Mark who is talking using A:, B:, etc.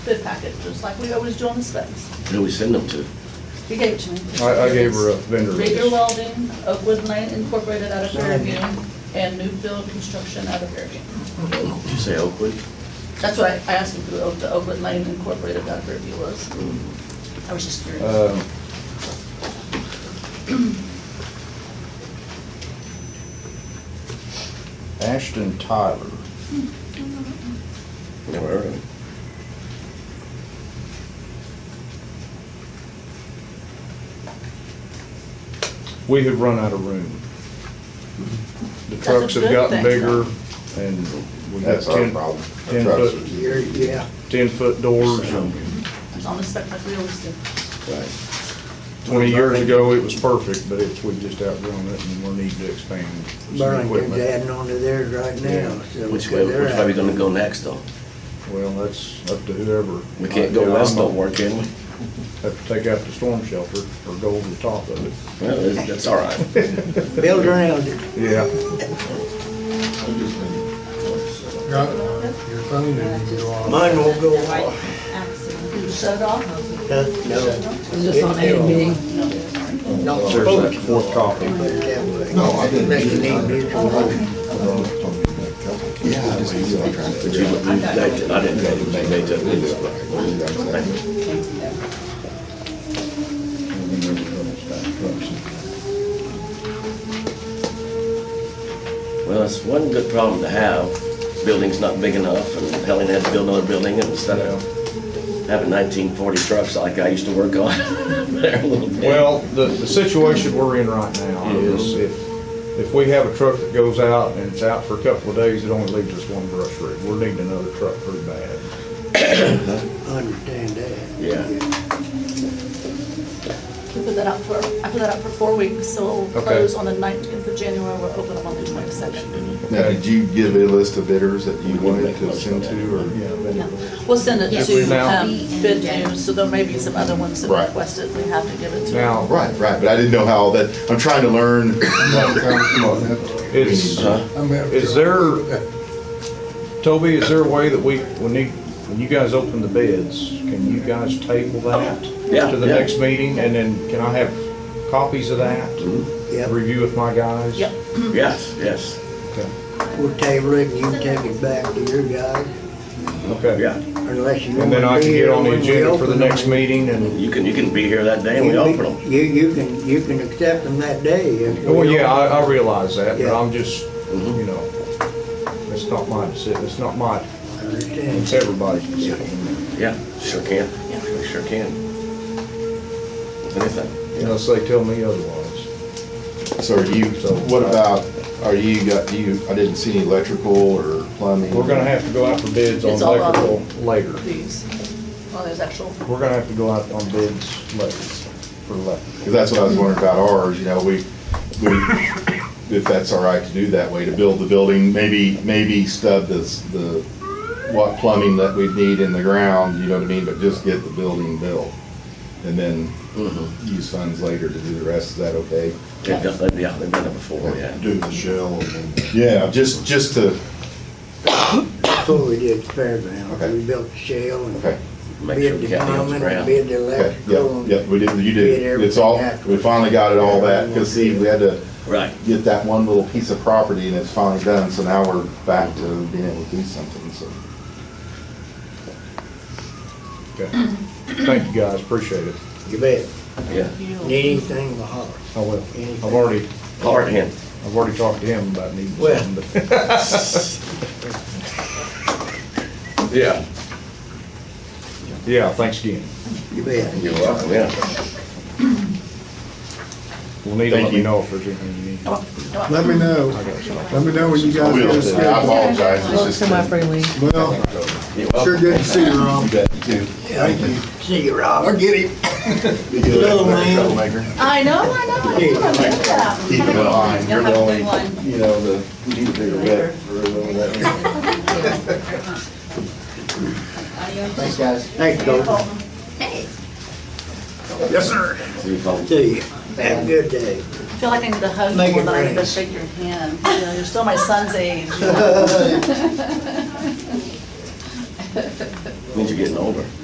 A: food packets, just like we always do on the specs.
B: Who do we send them to?
A: He gave it to me.
C: I, I gave her a vendor
A: Rigger
C: list.
A: Welding of Wood Lane Incorporated out of Fairview and Newfield Construction out of Fairview.
B: Did you say Oakland?
A: That's what I I asked him who the Oakwood Lane Incorporated out of Fairview was. I was just curious.
C: Um, Ashton Tyler,
B: Never heard of it.
C: we have run out of room. The
A: That's a
C: trucks have
A: good thing,
C: gotten bigger and we got
D: That's our
C: ten,
D: problem. Our
C: ten
D: trucks
C: foot-
D: is-
E: You're- Yeah,
C: ten foot doors and
A: It's on the spec like we always do.
B: Right.
C: twenty years ago it was perfect, but it's, we've just outgrown it and we're needing to expand some
E: Burlington's
C: equipment.
E: adding on to theirs right now. so
B: Which way,
E: they're
B: which way
E: out.
B: we gonna go next though?
C: Well, that's up to whoever.
B: We can't go
C: Uh, Yeah, I'm
B: west
C: a-
B: on work, can we?
C: Have to take out the storm shelter or go over the top of it.
B: Well, that's- that's all right.
E: Build around it.
C: Yeah.
F: Got your phone didn't go off.
E: Mine won't go
G: Right.
E: off.
A: You shut it off?
E: Huh? No.
H: Is this on A&D?
E: Not
C: There's that
E: supposed to.
C: fourth copy.
E: Put it that way.
D: No, I didn't.
E: Make it ain't mutual.
D: Yeah, just keep on trying to figure out.
B: They- I didn't know they made that news, but Well, it's one good problem to have. Building's not big enough and Helen had to build another building and instead of having nineteen forty trucks like I used to work on. they're a little bit-
C: Well, the, the situation we're in right now is if, if we have a truck that goes out and it's out for a couple of days, it only leaves us one brush rig. We're needing another truck pretty bad.
E: I Understand that.
B: Yeah.
A: We put that out for, I put that out for four weeks, so we'll
C: Okay.
A: close on the nineteenth of January, we'll open up on the twenty-second.
D: Now, did you give a list of bidders that you wanted to send to, or?
C: Yeah,
A: Yeah,
C: but-
A: we'll send it
C: Yes.
A: to
C: Now-
A: um, Bid News, so there may be some other ones that
D: Right.
A: requested, we have to give it to.
C: Now,
D: Right, right, but I didn't know how all that, I'm trying to learn.
C: It's, is there, Toby, is there a way that we, when you, when you guys open the bids, can you guys table that
B: Yeah,
C: to the
B: yeah.
C: next meeting? And then can I have copies of that?
E: Yep,
C: Review with my guys?
A: Yep,
B: Yes, yes,
C: Okay.
E: we'll table it and you can take it back to your guys
C: Okay.
B: yeah.
E: unless you want to
C: And then I can get
E: be here
C: on the
E: when we
C: agenda for the
E: open
C: next
E: them.
C: meeting and,
B: You can, you can be here that day and we
E: You-
B: open them.
E: You, you can, you can accept them that day. if we
C: oh, well, yeah,
E: open
C: I, I
E: them.
C: realize that, but
E: Yeah.
C: I'm just, you know, it's not my decision, it's not my,
E: I Understand.
C: it's everybody's decision.
B: Yeah, sure can. Yeah, sure can. If Anything.
C: Unless they tell me otherwise.
D: So are you, what about, are you, got you, I didn't see any electrical or plumbing?
C: We're gonna have to go out for bids on
A: It's all on-
C: electrical later.
A: these, well, there's actual,
C: We're gonna have to go out on bids later for electrical.
D: Because that's what I was wondering about ours, you know, we, we, if that's all right to do that way, to build the building, maybe, maybe stub the, the, what plumbing that we'd need in the ground, you know what I mean, but just get the building built. And then use funds later to do the rest, is that okay?
B: They've done, they've- yeah, they've done it before, yeah.
D: Do the shell and then. Oh, Yeah, just, just to,
E: Before we did Fairground,
D: Okay.
E: we built the shell and
D: okay,
B: Make sure
E: bid
B: we
E: the
B: got the
E: plumbing,
B: ground.
E: bid the
D: okay,
E: electrical.
D: yep, yep, we did, you did, it's all, we finally got it all that, because see, we had to
B: Right.
D: get that one little piece of property and it's finally done, so now we're back to being able to do something, so.
C: Okay. Thank you guys, appreciate it.
E: You bet.
B: Yeah.
E: Need anything, we'll holler.
C: I will. I've already,
B: Hard hand.
C: I've already talked to him about needing
E: Well.
C: something, but. Yeah. Yeah, thanks again.
E: You bet.
B: You're welcome, yeah.
C: We'll need to
D: Thank
C: let me
D: you.
C: know if there's anything you need.
A: come on, come on.
F: Let me know, let me know when you guys
D: I
F: get a
D: will, I
F: schedule.
D: apologize, it's just.
H: Semi-freely.
F: Well,
B: You're welcome.
F: sure good to see you, Rob.
E: Thank you. See you, Rob. I'll get him.
D: Little man.
A: I know, I know, I know, I get that.
D: Keep in mind, you're
A: You'll have
D: the
A: a
D: only,
A: good one.
D: you know, the, you need a bigger rep for all that.
E: Thanks, guys. Thanks, Colton.
B: See you, folks.
E: See you. Have a good day.
A: I feel like I need a hug
E: Make
A: more
E: it
A: than I need to
E: rain.
A: shake your hand, you know, you're still my son's age.
B: means you're getting older.